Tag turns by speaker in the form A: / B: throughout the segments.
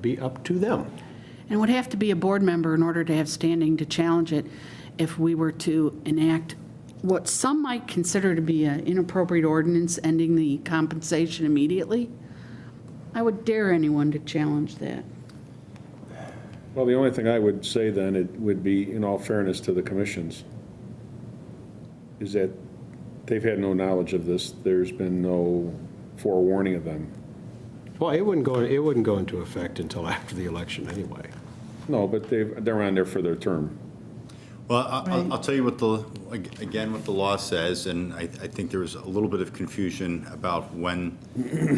A: be up to them.
B: And it would have to be a board member in order to have standing to challenge it if we were to enact what some might consider to be an inappropriate ordinance ending the compensation immediately. I would dare anyone to challenge that.
C: Well, the only thing I would say then, it would be, in all fairness to the commissions, is that they've had no knowledge of this. There's been no forewarning of them.
A: Well, it wouldn't go, it wouldn't go into effect until after the election anyway.
C: No, but they, they're on there for their term.
D: Well, I- I'll, I'll tell you what the, ag- again, what the law says, and I, I think there was a little bit of confusion about when,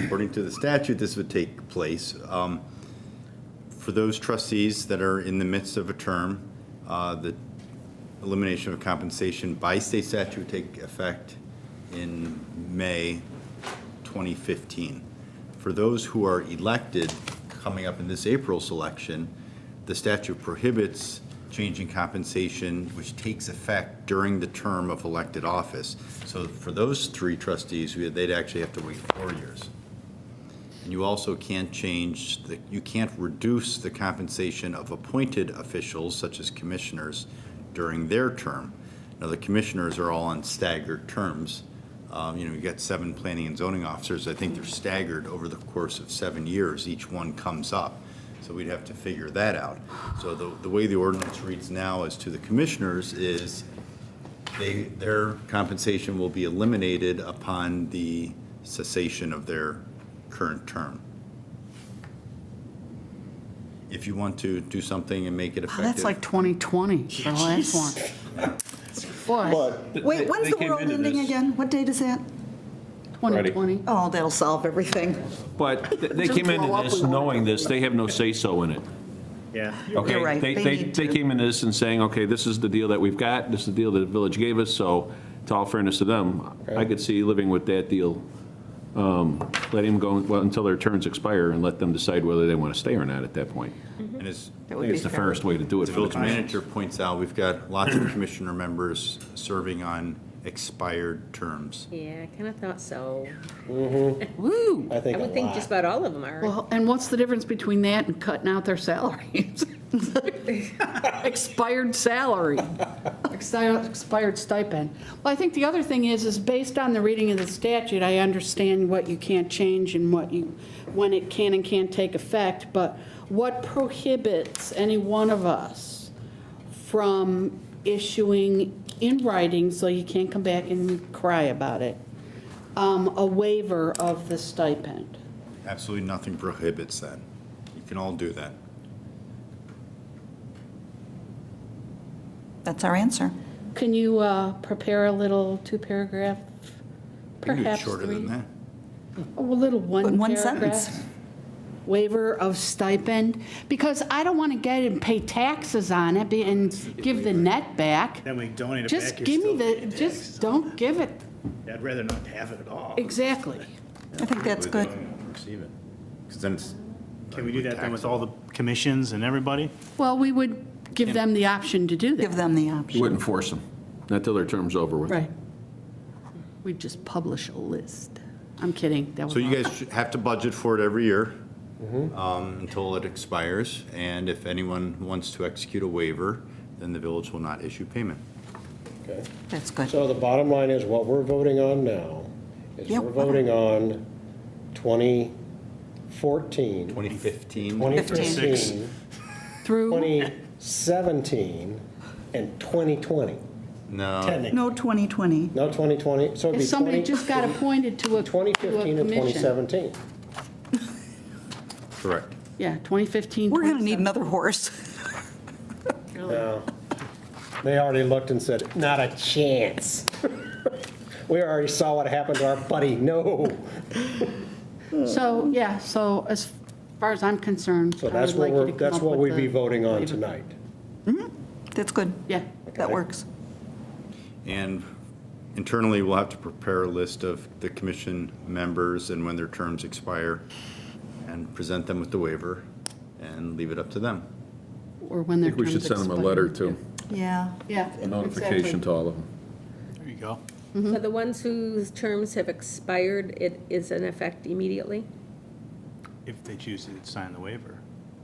D: according to the statute, this would take place. Um, For those trustees that are in the midst of a term, uh, the elimination of compensation by state statute would take effect in May 2015. For those who are elected, coming up in this April's election, the statute prohibits changing compensation, which takes effect during the term of elected office. So for those three trustees, we- they'd actually have to wait four years. And you also can't change, the you can't reduce the compensation of appointed officials, such as commissioners, during their term. Now, the commissioners are all on staggered terms. Um, You know, you got seven planning and zoning officers. I think they're staggered over the course of seven years. Each one comes up. So we'd have to figure that out. So the, the way the ordinance reads now as to the commissioners is they, their compensation will be eliminated upon the cessation of their current term. If you want to do something and make it
B: Wow, Oh, That's like
D: effective,
B: 2020, for the last one. Boy,
E: Wait, when's the world ending again? What date is that?
B: 2020.
E: Oh, that'll solve everything.
F: But th- they came into this knowing this, they have no say-so in it. Yeah.
E: You're
F: Okay,
E: right,
F: they,
E: they
F: they,
E: need
F: they
E: to.
F: came into this and saying, okay, this is the deal that we've got, this is the deal that the village gave us, so to all fairness to them, I could see living with that deal. Um, Let him go, well, until their terms expire and let them decide whether they want to stay or not at that point.
D: and as
F: I think it's the fairest way to do it.
D: the
F: for the
D: village
F: commission.
D: manager points out, we've got lots of commissioner members serving on expired terms.
G: Yeah, I kind of thought so.
B: Woo!
A: I
G: I would think just about all of them are.
B: Well, and what's the difference between that and cutting out their salaries? Expired salary, exi- expired stipend. Well, I think the other thing is, is based on the reading of the statute, I understand what you can't change and what you, when it can and can't take effect, but what prohibits any one of us from issuing in writing, so you can't come back and cry about it, um, a waiver of the stipend?
D: Absolutely nothing prohibits that. You can all do that.
E: That's our answer.
B: Can you uh, prepare a little two-paragraph,
D: You can do it
B: perhaps
D: shorter than
B: three?
D: that.
B: A little one-paragraph?
E: One sentence.
B: Waiver of stipend? Because I don't want to get and pay taxes on it be- and give the net back.
H: Then we donate it back.
B: Just
H: you're
B: give me
H: still
B: the,
H: paying taxes
B: just
H: on
B: don't give it,
H: it. I'd rather not have it at all.
B: exactly.
E: I think that's good.
D: Receive it. 'Cause then it's.
H: Can we do that then with all the commissions and everybody?
B: Well, we would give them the option to do
E: Give
B: that.
E: them the
F: You
E: option.
F: wouldn't force them, not till their term's over with.
B: Right. We'd just publish a list. I'm kidding, that was
D: So you
B: all.
D: guys should have to budget for it every year um, until it expires, and if anyone wants to execute a waiver, then the village will not issue payment.
E: That's good.
A: So the bottom line is, what we're voting on now is
E: Yeah.
A: we're voting on 2014,
D: 2015,
A: 2015,
B: Through,
A: 2017, and 2020.
D: no,
A: Technically,
E: No 2020.
A: no 2020, so it'd
B: if
A: be
B: somebody
A: 20
B: just got appointed to a, to a
A: 2015 and
B: commission.
A: 2017.
D: correct.
B: Yeah, 2015,
E: We're going to
B: 2017.
E: need another horse.
A: They already looked and said, not a chance. We already saw what happened to our buddy, no.
B: So, yeah, so as far as I'm concerned.
A: So
B: I
A: that's
B: would
A: what
B: like you
A: we're,
B: to come
A: that's
B: up
A: what
B: with
A: we'd be
B: the-
A: voting on tonight.
E: That's good.
B: Yeah,
E: That works.
D: And internally, we'll have to prepare a list of the commission members and when their terms expire, and present them with the waiver, and leave it up to them.
B: or when
F: I
B: their
F: think we should
B: terms
F: send them a
B: expire.
F: letter too,
E: Yeah.
B: Yeah.
F: a notification
B: exactly.
F: to all of them.
H: There you go.
B: mm-hmm.
G: So the ones whose terms have expired, it is in effect immediately?
H: If they choose to sign the waiver.